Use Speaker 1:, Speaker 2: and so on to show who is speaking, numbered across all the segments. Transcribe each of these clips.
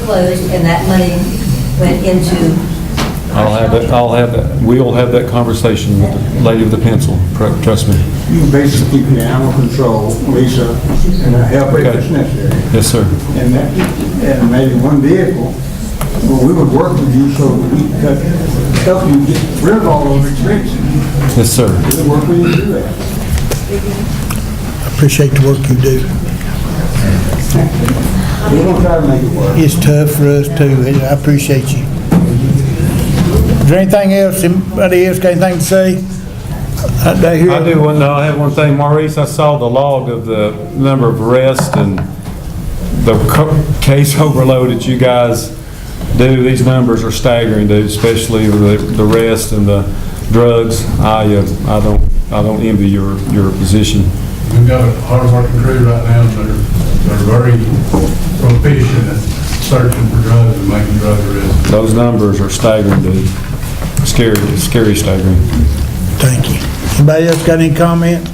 Speaker 1: closed and that money went into.
Speaker 2: I'll have that, I'll have that, we'll have that conversation with the lady with the pencil, tr- trust me.
Speaker 3: You basically keep the animal control, Lisa, and a helper if it's necessary.
Speaker 2: Yes, sir.
Speaker 3: And that, and maybe one vehicle, well, we would work with you so we could help you get rid of all those expenses.
Speaker 2: Yes, sir.
Speaker 3: We'd work with you to do that.
Speaker 4: Appreciate the work you do.
Speaker 3: We're gonna try to make it work.
Speaker 4: It's tough for us too, and I appreciate you. Is there anything else, anybody else got anything to say? I they hear-
Speaker 2: I do one, no, I have one thing, Maurice, I saw the log of the number of arrests and the co- case overload that you guys do, these numbers are staggering, dude, especially with the the arrest and the drugs. I, uh, I don't, I don't envy your, your position.
Speaker 5: We've got a hard-working crew right now that are, that are very proficient at searching for drugs and making drug arrests.
Speaker 2: Those numbers are staggering, dude. Scary, scary staggering.
Speaker 4: Thank you. Anybody else got any comment?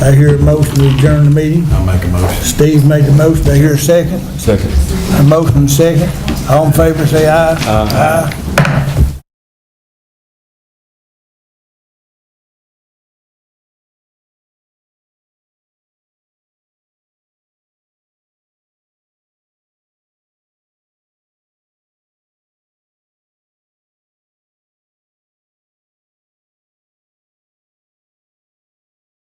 Speaker 4: I hear a motion to adjourn the meeting.
Speaker 5: I'll make a motion.
Speaker 4: Steve made the motion, I hear a second.
Speaker 2: Second.
Speaker 4: A motion and a second. All in favor, say aye. Aye.